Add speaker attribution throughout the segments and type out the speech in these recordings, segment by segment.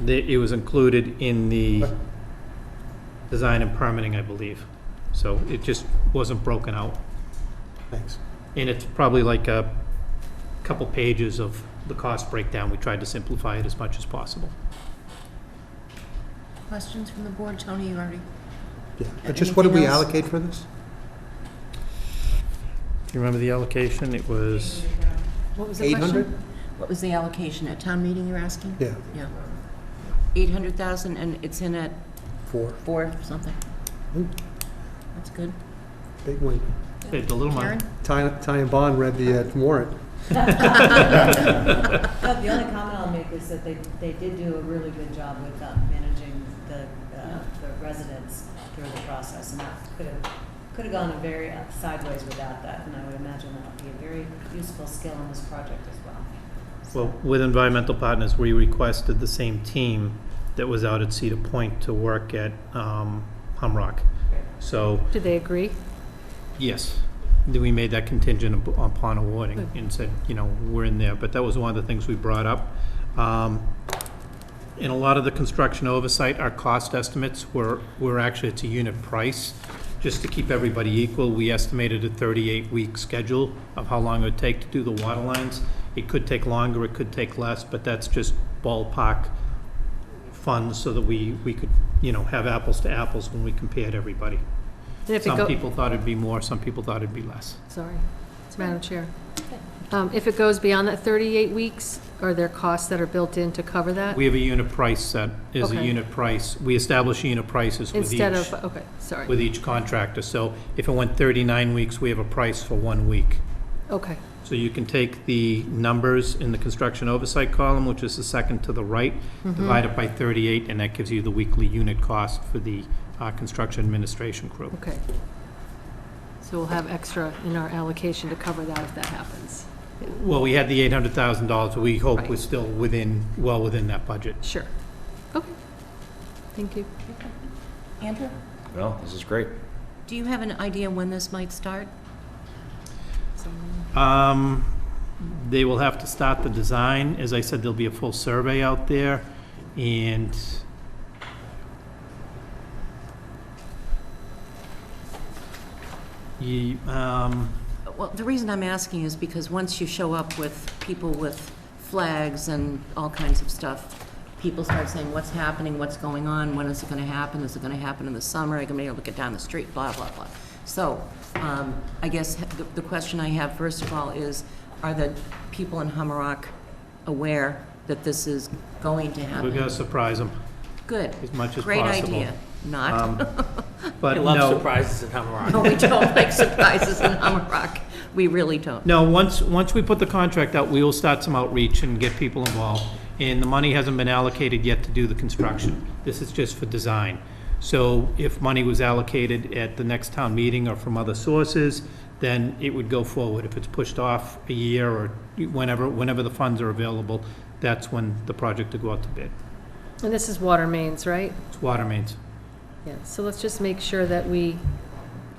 Speaker 1: The- It was included in the design and permitting, I believe. So it just wasn't broken out.
Speaker 2: Thanks.
Speaker 1: And it's probably like a couple pages of the cost breakdown. We tried to simplify it as much as possible.
Speaker 3: Questions from the board? Tony, you already,
Speaker 2: Yeah. Uh, Just what did we
Speaker 3: Anything else?
Speaker 2: allocate for this?
Speaker 1: Do you remember the allocation? It was,
Speaker 3: what was the
Speaker 2: Eight
Speaker 3: question?
Speaker 2: hundred?
Speaker 3: What was the allocation at town meeting you're asking?
Speaker 2: Yeah,
Speaker 3: Yeah. 800,000 and it's in at
Speaker 2: four.
Speaker 3: four something.
Speaker 2: Ooh.
Speaker 3: That's good.
Speaker 2: Big win.
Speaker 1: saved a little money.
Speaker 3: Karen?
Speaker 2: Ty Ty and Bond read the uh, warrant.
Speaker 4: Uh, The only comment I'll make is that they, they did do a really good job with uh, managing the, uh, the residents through the process, and that could have, could have gone a very uh, sideways without that, and I would imagine that would be a very useful skill in this project as well.
Speaker 1: Well, with environmental partners, we requested the same team that was out at Cedar Point to work at um, Humrock. So,
Speaker 5: Do they agree?
Speaker 1: yes, th- we made that contingent up- upon awarding and said, you know, we're in there. But that was one of the things we brought up. Um, In a lot of the construction oversight, our cost estimates were, were actually, it's a unit price. Just to keep everybody equal, we estimated a 38-week schedule of how long it would take to do the water lines. It could take longer, it could take less, but that's just ballpark funds so that we, we could, you know, have apples to apples when we compared everybody.
Speaker 5: And if it
Speaker 1: Some
Speaker 5: go-
Speaker 1: people thought it'd be more, some people thought it'd be less.
Speaker 5: Sorry, it's Madam Chair. Um, If it goes beyond that 38 weeks, are there costs that are built in to cover that?
Speaker 1: We have a unit price that is a
Speaker 5: Uh, Okay.
Speaker 1: unit price. We establish unit prices with each.
Speaker 5: Instead of, okay, sorry,
Speaker 1: with each contractor. So if it went 39 weeks, we have a price for one week.
Speaker 5: okay,
Speaker 1: So you can take the numbers in the construction oversight column, which is the second to the right,
Speaker 5: Mm-hmm.
Speaker 1: divide it by 38, and that gives you the weekly unit cost for the uh, construction administration crew.
Speaker 5: okay. So we'll have extra in our allocation to cover that if that happens.
Speaker 1: Well, we had the $800,000, we hope
Speaker 5: Right.
Speaker 1: we're still within, well within that budget.
Speaker 5: Sure. Okay, thank you.
Speaker 3: Andrew,
Speaker 6: No, this is great.
Speaker 3: do you have an idea when this might start?
Speaker 1: Um, They will have to start the design. As I said, there'll be a full survey out there, and Ye- um,
Speaker 3: Well, the reason I'm asking is because once you show up with people with flags and all kinds of stuff, people start saying, what's happening, what's going on, when is it gonna happen, is it gonna happen in the summer, are you gonna be able to get down the street, blah, blah, blah. So, um, I guess the, the question I have first of all is, are the people in Hummerock aware that this is going to
Speaker 1: we're
Speaker 3: happen?
Speaker 1: gonna surprise them
Speaker 3: Good,
Speaker 1: as much as possible.
Speaker 3: great idea.
Speaker 2: Um.
Speaker 3: Not,
Speaker 1: But
Speaker 7: I love
Speaker 1: no,
Speaker 7: surprises at Hammerock.
Speaker 3: no, we don't like surprises in Hummerock, we really don't.
Speaker 1: No, once, once we put the contract out, we will start some outreach and get people involved. And the money hasn't been allocated yet to do the construction. This is just for design. So if money was allocated at the next town meeting or from other sources, then it would go forward. If it's pushed off a year or whenever, whenever the funds are available, that's when the project will go out to bid.
Speaker 5: And this is water mains, right?
Speaker 1: It's water mains.
Speaker 5: Yeah, so let's just make sure that we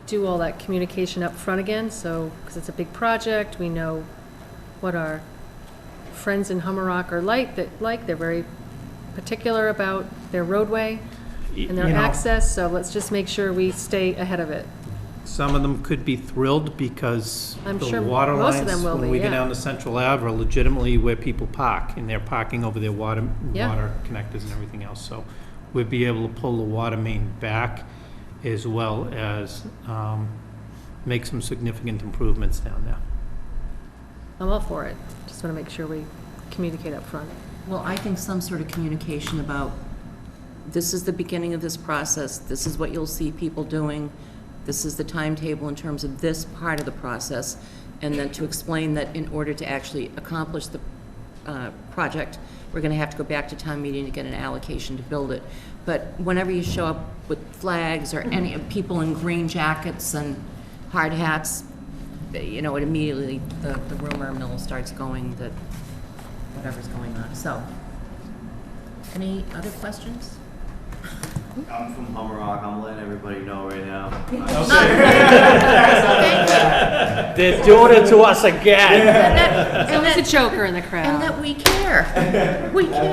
Speaker 5: do all that communication up front again, so, because it's a big project, we know what our friends in Hummerock are like, that, like, they're very particular about their roadway
Speaker 1: Y-
Speaker 5: and their
Speaker 1: you know,
Speaker 5: access, so let's just make sure we stay ahead of it.
Speaker 1: Some of them could be thrilled because
Speaker 5: I'm
Speaker 1: the
Speaker 5: sure
Speaker 1: water
Speaker 5: most of
Speaker 1: lines,
Speaker 5: them will
Speaker 1: when
Speaker 5: be,
Speaker 1: we go
Speaker 5: yeah.
Speaker 1: down to Central Ave, are legitimately where people park, and they're parking over their water,
Speaker 5: Yeah.
Speaker 1: water connectors and everything else. So we'd be able to pull the water main back as well as um, make some significant improvements down there.
Speaker 5: I'm all for it, just want to make sure we communicate up front.
Speaker 3: Well, I think some sort of communication about, this is the beginning of this process, this is what you'll see people doing, this is the timetable in terms of this part of the process, and then to explain that in order to actually accomplish the uh, project, we're going to have to go back to town meeting to get an allocation to build it. But whenever you show up with flags or any, people in green jackets and hard hats, you know, it immediately, the the rumor mill starts going that whatever's going on. So, any other questions?
Speaker 8: I'm from Hummerock. I'm letting everybody know right now.
Speaker 7: They're doing it to us again.
Speaker 3: And that,
Speaker 5: There's a choker in the crowd.
Speaker 3: and that we care. We care.